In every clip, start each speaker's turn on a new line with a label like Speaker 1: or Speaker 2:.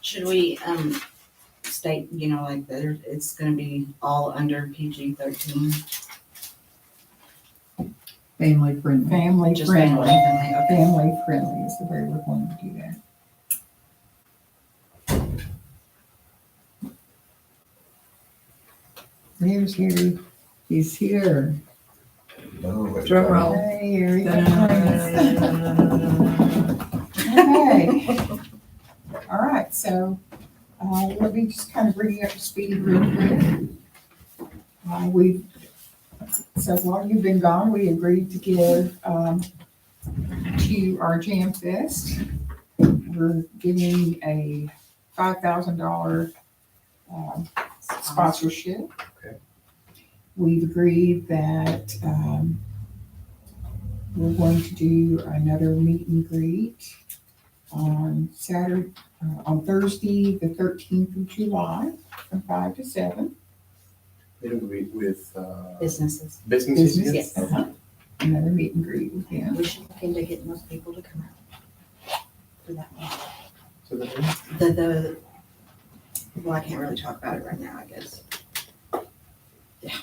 Speaker 1: Should we, um, state, you know, like that it- it's gonna be all under PG thirteen?
Speaker 2: Family friendly.
Speaker 3: Family
Speaker 1: Just family
Speaker 3: friendly,
Speaker 1: friendly, okay.
Speaker 3: family friendly is the way we're going to do that.
Speaker 2: There's Harry. He's here. Drum
Speaker 4: Drum
Speaker 2: roll.
Speaker 3: Hey, Eric. Okay. All right, so, uh, let me just kind of bring you up to speed real quick. Uh, we, so while you've been gone, we agreed to give, um, to our Jam Fest. We're giving a five thousand dollar, um, sponsorship.
Speaker 4: Okay.
Speaker 3: We've agreed that, um, we're going to do another meet and greet on Saturday, uh, on Thursday, the thirteenth of July, from five to seven.
Speaker 4: It'll be with, uh,
Speaker 1: Businesses.
Speaker 4: businesses,
Speaker 3: Business.
Speaker 4: yes?
Speaker 1: Yes.
Speaker 4: Okay.
Speaker 3: Another meet and greet with them.
Speaker 1: We should look into getting those people to come out. For that one.
Speaker 4: So then,
Speaker 1: The, the, well, I can't really talk about it right now, I guess. Yeah.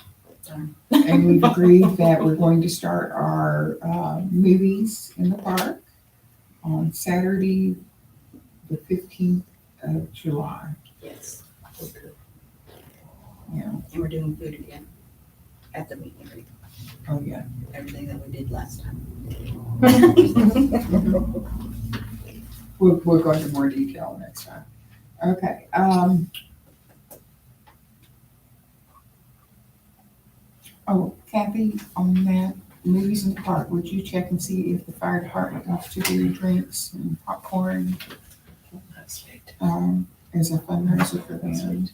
Speaker 1: darn.
Speaker 3: And we've agreed that we're going to start our uh, movies in the park on Saturday, the fifteenth of July.
Speaker 1: Yes,
Speaker 4: okay.
Speaker 3: Yeah,
Speaker 1: and we're doing food again at the meet and greet,
Speaker 3: oh, yeah.
Speaker 1: everything that we did last time.
Speaker 3: We'll, we'll go into more detail next time. Okay, um. Oh, Kathy, on that movies in the park, would you check and see if the fire department wants to do drinks and popcorn? Um, as a fundraiser for them.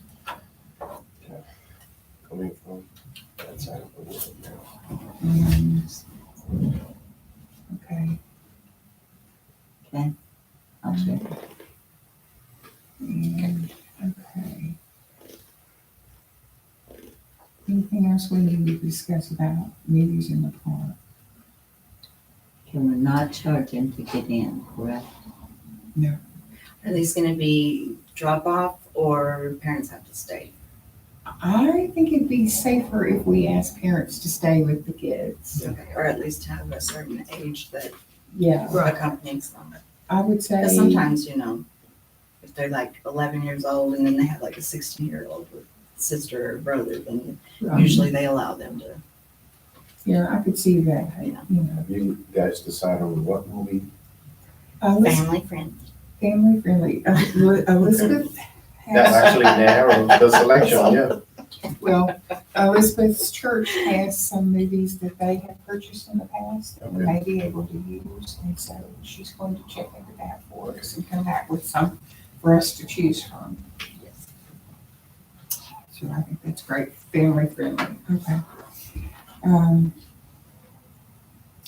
Speaker 4: Coming from that side of the world now.
Speaker 3: and- Okay.
Speaker 1: Okay.
Speaker 3: I'll check. And, okay. Anything else we need to discuss about meetings in the park?
Speaker 2: And we're not charging to get in, correct?
Speaker 1: Are these gonna be drop off or parents have to stay?
Speaker 3: I think it'd be safer if we ask parents to stay with the kids.
Speaker 1: Okay, Or at least have a certain age that
Speaker 3: Yeah,
Speaker 1: accompanies them.
Speaker 3: I would say.
Speaker 1: Because sometimes, you know, if they're like eleven years old and then they have like a sixteen year old with sister or brother, then
Speaker 3: um,
Speaker 1: usually they allow them to.
Speaker 3: Yeah, I could see that, you
Speaker 1: Yeah.
Speaker 3: know.
Speaker 4: Have you guys decided on what movie?
Speaker 3: Uh, let's
Speaker 1: Family friend.
Speaker 3: Family friendly. Uh, Li- Elizabeth
Speaker 4: That
Speaker 3: has,
Speaker 4: actually narrows the selection, yeah.
Speaker 3: well, uh, Elizabeth's church has some movies that they have purchased in the past that we may be able to use. And so she's going to check into that for us and come back with some for us to choose from. So I think that's great, family friendly. Okay. Um,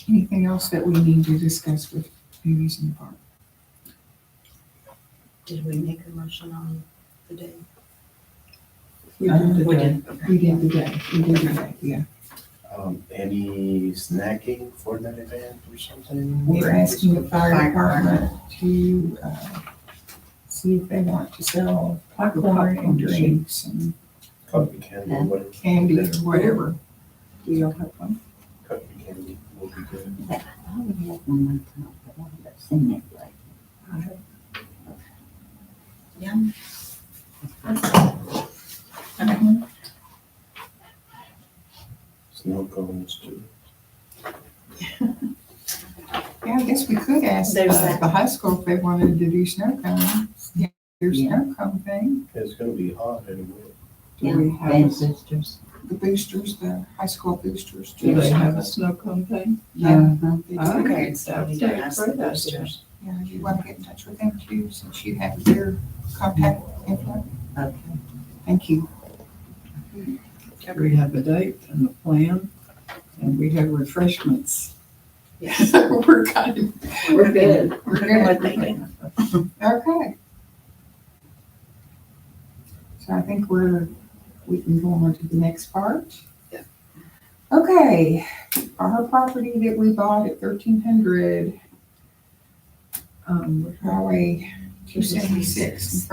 Speaker 3: Anything else that we need to discuss with movies in the park?
Speaker 1: Did we make a motion on the day?
Speaker 3: We did the
Speaker 1: We
Speaker 3: day.
Speaker 1: did, okay.
Speaker 3: Uh, We did the day, we did the day, yeah.
Speaker 4: Um, any snacking for that event or something?
Speaker 3: We're asking the fire
Speaker 1: Fire
Speaker 3: department to, uh, see if they want to sell popcorn and drinks and
Speaker 4: Cotton candy, whatever,
Speaker 3: candy or whatever. We don't have one.
Speaker 4: cotton candy will be good.
Speaker 2: I would have one one time, but I haven't seen it like.
Speaker 4: Snow cones too.
Speaker 3: Yeah, I guess we could ask
Speaker 1: There's
Speaker 3: uh,
Speaker 1: that.
Speaker 3: the high school if they wanted to do snow cones. Yeah, Their
Speaker 2: Yeah.
Speaker 3: snow cone thing.
Speaker 4: It's gonna be hot anyway.
Speaker 3: Do we
Speaker 2: Band
Speaker 3: have
Speaker 2: sisters.
Speaker 3: the boosters, the high school boosters?
Speaker 5: Do
Speaker 3: do
Speaker 5: they
Speaker 3: snow
Speaker 5: have a
Speaker 3: cones?
Speaker 5: snow cone thing?
Speaker 3: Yeah. they do.
Speaker 5: Oh,
Speaker 1: Okay, so we need to
Speaker 5: Okay,
Speaker 1: ask the
Speaker 5: for that.
Speaker 1: boosters.
Speaker 3: Yeah, you want to get in touch with them too, since you have their contact info.
Speaker 2: Okay.
Speaker 3: Thank you.
Speaker 5: We have a date and a plan, and we have refreshments.
Speaker 1: Yes.
Speaker 5: We're kind of.
Speaker 1: We're good.
Speaker 3: We're
Speaker 1: We're
Speaker 3: good.
Speaker 1: good.
Speaker 3: Okay. So I think we're, we can go on to the next part.
Speaker 1: Yeah.
Speaker 3: Okay, our property that we bought at thirteen hundred
Speaker 5: Um,
Speaker 3: Highway two seventy-six in front